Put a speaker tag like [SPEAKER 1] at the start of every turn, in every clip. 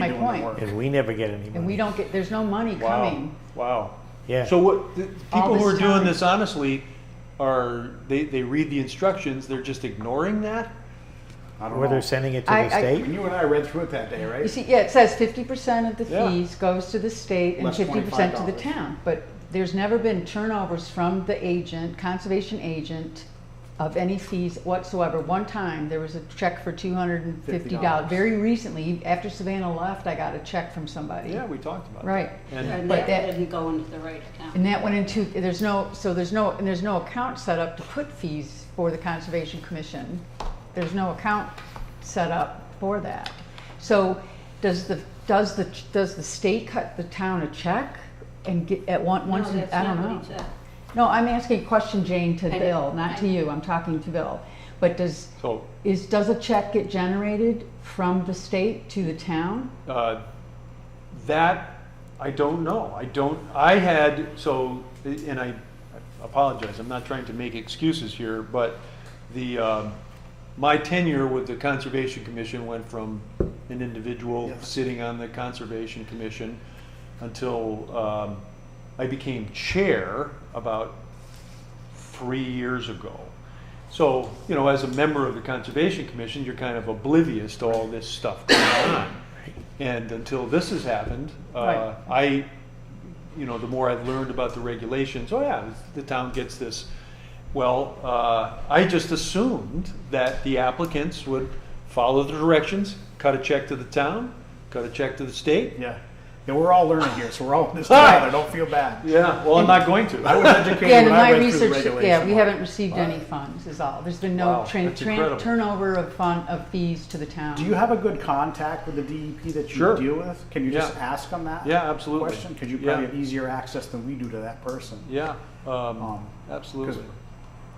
[SPEAKER 1] my
[SPEAKER 2] doing the
[SPEAKER 1] point.
[SPEAKER 2] work.
[SPEAKER 3] And we never get any money.
[SPEAKER 1] And we don't get, there's no money
[SPEAKER 2] Wow,
[SPEAKER 1] coming.
[SPEAKER 2] wow.
[SPEAKER 3] Yeah.
[SPEAKER 2] So what, the
[SPEAKER 1] All
[SPEAKER 2] people who
[SPEAKER 1] this
[SPEAKER 2] are doing
[SPEAKER 1] time.
[SPEAKER 2] this honestly are, they, they read the instructions, they're just ignoring that? I don't
[SPEAKER 3] Or
[SPEAKER 2] know.
[SPEAKER 3] they're sending it to
[SPEAKER 1] I-
[SPEAKER 3] the
[SPEAKER 1] I-
[SPEAKER 3] state?
[SPEAKER 4] When you and I read through it that day,
[SPEAKER 1] You
[SPEAKER 4] right?
[SPEAKER 1] see, yeah, it says fifty percent of the
[SPEAKER 2] Yeah.
[SPEAKER 1] fees goes to the state and
[SPEAKER 4] Less
[SPEAKER 1] fifty percent to the
[SPEAKER 4] $25.
[SPEAKER 1] town. But there's never been turnovers from the agent, conservation agent, of any fees whatsoever. One time, there was a check for two hundred and fifty dollars.
[SPEAKER 4] $50.
[SPEAKER 1] Very recently, after Savannah left, I got a check from somebody.
[SPEAKER 2] Yeah, we talked about that.
[SPEAKER 1] Right.
[SPEAKER 2] And,
[SPEAKER 5] And
[SPEAKER 1] But
[SPEAKER 5] that
[SPEAKER 1] that-
[SPEAKER 5] didn't go into the right account.
[SPEAKER 1] And that went into, there's no, so there's no, and there's no account set up to put fees for the Conservation Commission. There's no account set up for that. So does the, does the, does the state cut the town a check and get, at one, once,
[SPEAKER 5] No,
[SPEAKER 1] and-
[SPEAKER 5] that's
[SPEAKER 1] I don't
[SPEAKER 5] not
[SPEAKER 1] know.
[SPEAKER 5] what he said.
[SPEAKER 1] No, I'm asking a question, Jane, to
[SPEAKER 5] I know,
[SPEAKER 1] Bill, not to
[SPEAKER 5] I-
[SPEAKER 1] you, I'm talking to Bill. But does,
[SPEAKER 2] so,
[SPEAKER 1] is, does a check get generated from the state to the town?
[SPEAKER 2] uh, that, I don't know. I don't, I had, so, and I I apologize, I'm not trying to make excuses here, but the, um, my tenure with the Conservation Commission went from an individual
[SPEAKER 4] Yes.
[SPEAKER 2] sitting on the Conservation Commission until um, I became chair about three years ago. So, you know, as a member of the Conservation Commission, you're kind of oblivious to all this stuff going on. And until this has happened, uh, I, you know, the more I've learned about the regulations, oh yeah, the town gets this. Well, uh, I just assumed that the applicants would follow the directions, cut a check to the town, cut a check to the state.
[SPEAKER 4] Yeah. Yeah, we're all learning here, so we're all in this together. Don't feel bad.
[SPEAKER 2] Yeah, well, I'm not going
[SPEAKER 4] I
[SPEAKER 2] to.
[SPEAKER 4] was educated
[SPEAKER 1] Yeah,
[SPEAKER 4] when
[SPEAKER 1] in
[SPEAKER 4] I
[SPEAKER 1] my
[SPEAKER 4] read through the
[SPEAKER 1] research, yeah, we
[SPEAKER 4] regulation.
[SPEAKER 1] haven't received any funds is all. There's been
[SPEAKER 2] Wow,
[SPEAKER 1] no tran-
[SPEAKER 2] that's
[SPEAKER 1] tran-
[SPEAKER 2] incredible.
[SPEAKER 1] turnover of fund, of fees to the town.
[SPEAKER 4] Do you have a good contact with the DEP that you
[SPEAKER 2] Sure.
[SPEAKER 4] deal with? Can you just
[SPEAKER 2] Yeah.
[SPEAKER 4] ask them that?
[SPEAKER 2] Yeah, absolutely.
[SPEAKER 4] Question, because you
[SPEAKER 2] Yeah.
[SPEAKER 4] probably have easier access than we do to that person.
[SPEAKER 2] Yeah, um,
[SPEAKER 4] Um, 'cause
[SPEAKER 2] absolutely.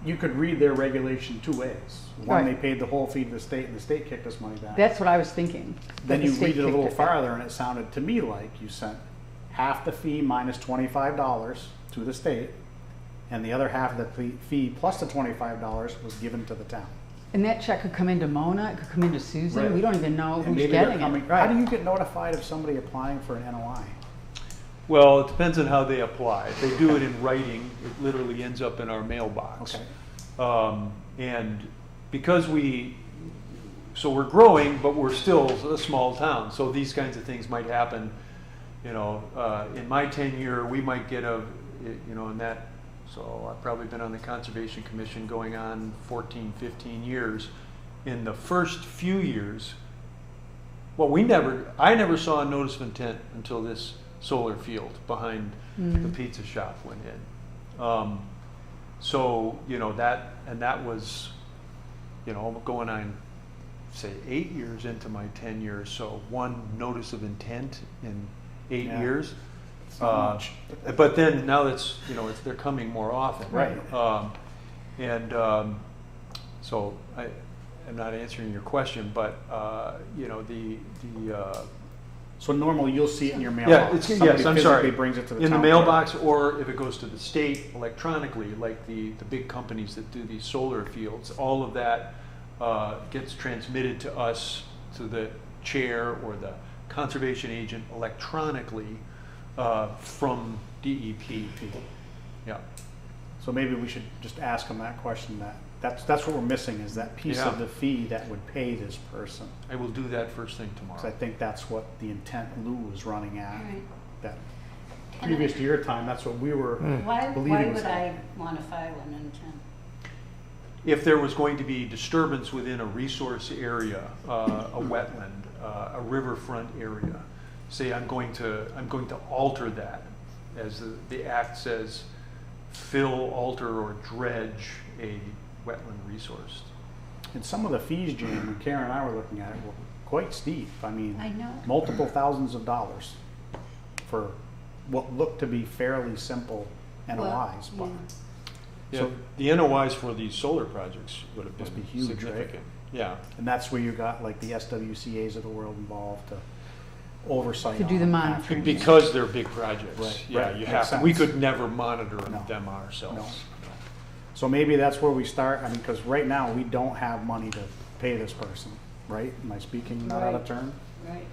[SPEAKER 4] you could read their regulation two ways.
[SPEAKER 1] Right.
[SPEAKER 4] One, they paid the whole fee to the state and the state kicked us money back.
[SPEAKER 1] That's what I was thinking. that
[SPEAKER 4] Then
[SPEAKER 1] the
[SPEAKER 4] you
[SPEAKER 1] state
[SPEAKER 4] read it a little
[SPEAKER 1] kicked back.
[SPEAKER 4] farther, and it sounded to me like you sent half the fee minus twenty-five dollars to the state, and the other half of the fee- fee plus the twenty-five dollars was given to the town.
[SPEAKER 1] And that check could come into Mona, it could come into Susan,
[SPEAKER 4] Right.
[SPEAKER 1] we don't even know
[SPEAKER 4] And
[SPEAKER 1] who's
[SPEAKER 4] maybe they're
[SPEAKER 1] getting
[SPEAKER 4] coming-
[SPEAKER 1] it.
[SPEAKER 4] How do
[SPEAKER 1] Right.
[SPEAKER 4] you get notified of somebody applying for an NOI?
[SPEAKER 2] Well, it depends on how they apply. If they do it in writing, it literally ends up in our mailbox.
[SPEAKER 4] Okay.
[SPEAKER 2] Um, and because we, so we're growing, but we're still a small town, so these kinds of things might happen. You know, uh, in my tenure, we might get a, you know, in that, so I've probably been on the Conservation Commission going on 14, 15 years. In the first few years, well, we never, I never saw a notice of intent until this solar field behind the pizza shop went in. Um, so, you know, that, and that was, you know, going on, say, eight years into my tenure, so one notice of intent in eight
[SPEAKER 4] Yeah.
[SPEAKER 2] years.
[SPEAKER 4] It's not
[SPEAKER 2] Uh,
[SPEAKER 4] much.
[SPEAKER 2] But then now it's, you know, it's, they're coming more often.
[SPEAKER 4] Right.
[SPEAKER 2] Um, and, um, so I, I'm not answering your question, but, uh, you know, the, the, uh,
[SPEAKER 4] So normally you'll see it in your
[SPEAKER 2] yeah,
[SPEAKER 4] mailbox.
[SPEAKER 2] it's,
[SPEAKER 4] Somebody
[SPEAKER 2] yes, I'm sorry.
[SPEAKER 4] physically brings it to the
[SPEAKER 2] In the
[SPEAKER 4] town
[SPEAKER 2] mailbox, or if it goes to the state electronically, like the, the big companies that do these solar fields, all of that uh, gets transmitted to us, to the chair or the conservation agent electronically uh, from DEP. Yeah,
[SPEAKER 4] So maybe we should just ask them that question, that, that's, that's what we're missing, is that piece of
[SPEAKER 2] Yeah.
[SPEAKER 4] the fee that would pay this person.
[SPEAKER 2] I will do that first thing
[SPEAKER 4] Because I
[SPEAKER 2] tomorrow.
[SPEAKER 4] think that's what the intent Lou was running at.
[SPEAKER 5] Right.
[SPEAKER 4] That previous to your time, that's what we were
[SPEAKER 5] Why, why
[SPEAKER 4] believing. was
[SPEAKER 5] would I
[SPEAKER 4] happening.
[SPEAKER 5] want to file an intent?
[SPEAKER 2] If there was going to be disturbance within a resource area, uh, a wetland, uh, a riverfront area, say I'm going to, I'm going to alter that, as the, the act says, fill, alter, or dredge a wetland resource.
[SPEAKER 4] And some of the fees, Jane, when Karen and I were looking at it, were quite steep. I mean,
[SPEAKER 5] I know.
[SPEAKER 4] multiple thousands of dollars for what looked to be fairly simple
[SPEAKER 5] Well,
[SPEAKER 4] NOIs, but
[SPEAKER 5] yeah.
[SPEAKER 2] So the NOIs for these solar projects would have
[SPEAKER 4] Must
[SPEAKER 2] been
[SPEAKER 4] be huge, right?
[SPEAKER 2] significant. Yeah,
[SPEAKER 4] and that's where you got like the SWCA's of the world involved to oversight.
[SPEAKER 1] To do the
[SPEAKER 4] on
[SPEAKER 1] monitoring.
[SPEAKER 4] after-
[SPEAKER 2] because they're big projects.
[SPEAKER 4] Right,
[SPEAKER 2] Yeah,
[SPEAKER 4] right,
[SPEAKER 2] you
[SPEAKER 4] makes
[SPEAKER 2] have, we
[SPEAKER 4] sense.
[SPEAKER 2] could never monitor
[SPEAKER 4] No.
[SPEAKER 2] them ourselves.
[SPEAKER 4] So maybe that's where we start. I mean, because right now we don't have money to pay this person, right? Am I speaking not out of
[SPEAKER 5] Right.
[SPEAKER 4] turn?
[SPEAKER 5] Right.